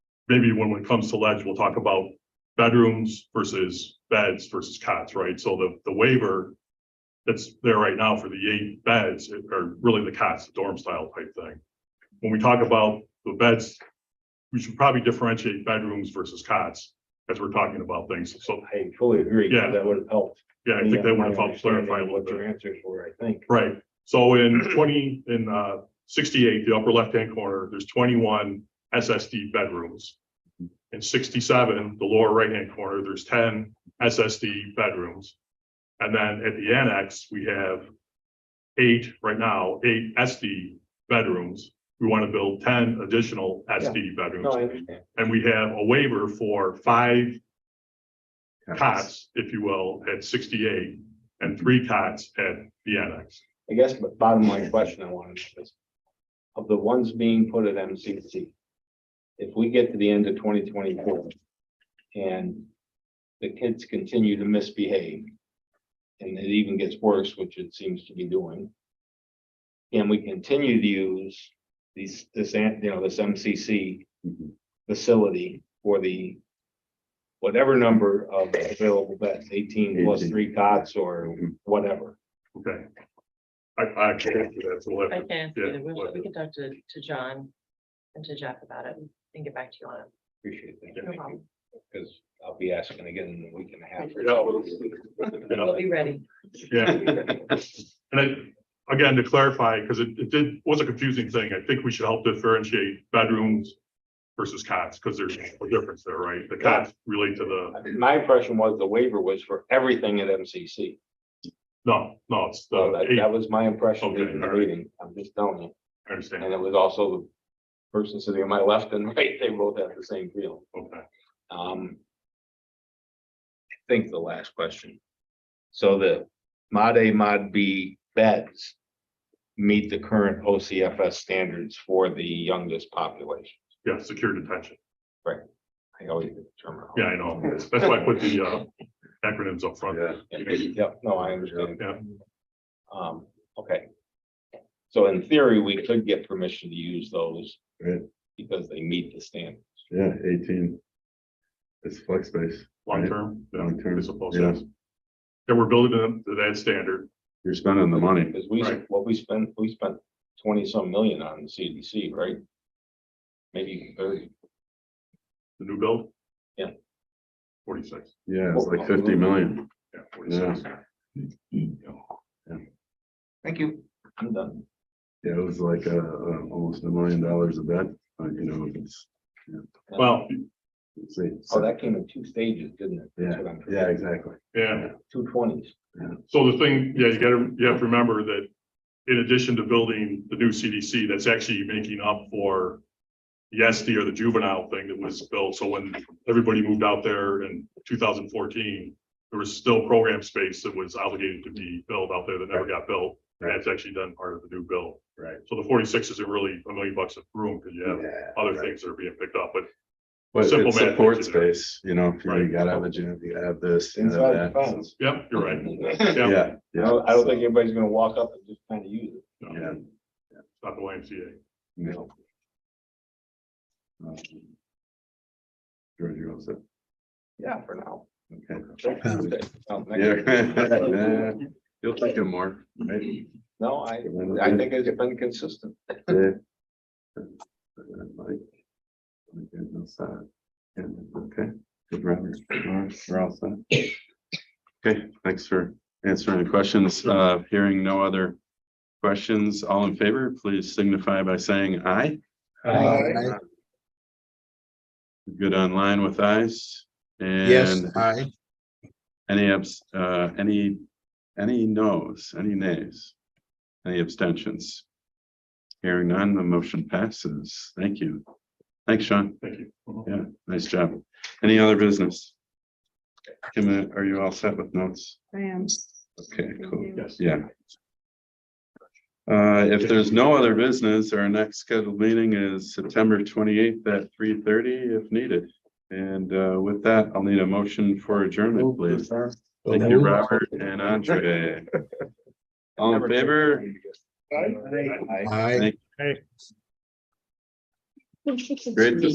maybe when it comes to ledge, we'll talk about bedrooms versus beds versus cots, right? So the, the waiver that's there right now for the eight beds are really the cots, the dorm style type thing. When we talk about the beds, we should probably differentiate bedrooms versus cots as we're talking about things. So, I fully agree. 'cause Yeah. That would have helped. yeah, I me think that on would my have helped clarify a understanding of little What bit. your answers were, I think. Right, so in twenty, in uh sixty-eight, the upper left-hand corner, there's twenty-one SSD bedrooms. In sixty-seven, the lower right-hand corner, there's ten SSD bedrooms. And then at the annex, we have eight, right now, eight SD bedrooms. We want to build ten additional SD No, I bedrooms, understand. and we have a waiver for five cots, if you will, at sixty-eight, and three cots at the annex. I guess, but bottom line question I wanted is, of the ones being put at MCC, if we get to the end of twenty twenty-four and the kids continue to misbehave, and it even gets worse, which it seems to be doing, and we continue to use these, this, an- you know, this MCC facility for the whatever number of available beds, eighteen Mm-hmm. plus Eighteen. three cots or whatever. Okay. I, I can't answer that, so we'll I have to- can, yeah, either. We'll- we whatever. can talk to, to John and to Jeff about it and get back to you on it. Appreciate that. No problem. Because I'll be asking again in a week and a half. or Yeah, so. We'll be ready. yeah, and then, again, to clarify, because it, it did, was a confusing thing, I think we should help differentiate bedrooms versus cots, because there's a difference there, right? The cots relate to the, My impression was the waiver was for everything at MCC. no, no, it's So the that, eight, that was my impression Oh, Okay, leaving the all right. meeting. I'm just telling you. I understand, And it was also the person sitting on my left and right, they both have the same feel. okay. Um. I think the last question. So the mod A, mod B beds meet the current OCFS standards for the youngest population. Yeah, secure detention, I always get the term. wrong. yeah, I know, that's that's why I put the, uh, acronyms up front. Yeah. Yep, no, I understand. Yeah. Um, okay. So in theory, we could get permission to use those. Right. Because they meet the standard. Yeah, eighteen. It's flex space. Long term, yeah, Long-term, as opposed yeah. to. And we're building them to that standard, You're spending the money. Because we, Right. what we spent, we spent twenty some million on the CDC, right? Maybe thirty. the new build. Yeah. Forty-six. Yeah, it's like fifty million. Yeah, forty-six. Yeah. Thank you. I'm done. Yeah, it was like uh, uh, almost a million dollars a bed. Uh, you know, if it's. Well, it's eight- Oh, that came in two stages, didn't it? That's what I'm- Yeah, exactly. yeah, Two twenties. so the thing, yeah, you gotta, you have to remember that in addition to building the new CDC, that's actually making up for the SD or the juvenile thing that was built, so when everybody moved out there in two thousand fourteen, there was still program space that was obligated to be built out there that never got built, and that's actually done part of the new bill. Right. So the forty-six isn't really a million bucks a room, because you have Yeah, other right. things that are being picked up, but But Simple it's math support gets you there. space, you know, if you Right. gotta have a gym, you gotta have this. you gotta Inside have the that. fence. yeah, you're right. I Yeah, Yeah, yeah. don't, I don't think anybody's gonna walk up and just kind of use it. no, Yeah. it's Not the YMCA. No. Um, George, you're all set. Yeah, for now. Okay. Um, next- Yeah. You'll think of more, right? No, I, I think it's been consistent. Yeah. Like, okay, no side. And, Okay, good round. All right, we're all set. Okay, thanks for answering the questions. Uh, hearing no other questions, all in favor, please signify by saying aye. Aye. Good online with eyes Yes, and aye. any abs, uh, any, any noes, any nays? Any abstentions? Hearing none, the motion passes. Thank you. Thanks, Sean. Thank you. Mhm. Yeah, nice job. Any other business? Kim, uh, are you all set with notes? I am. Okay, cool. Yes. Yeah. Uh, if there's no other business, our next scheduled meeting is September twenty-eighth at three thirty if needed. And, uh, with that, I'll need a motion for adjournment, please. Thank you, Robert and Andre. All in favor? Aye. Great to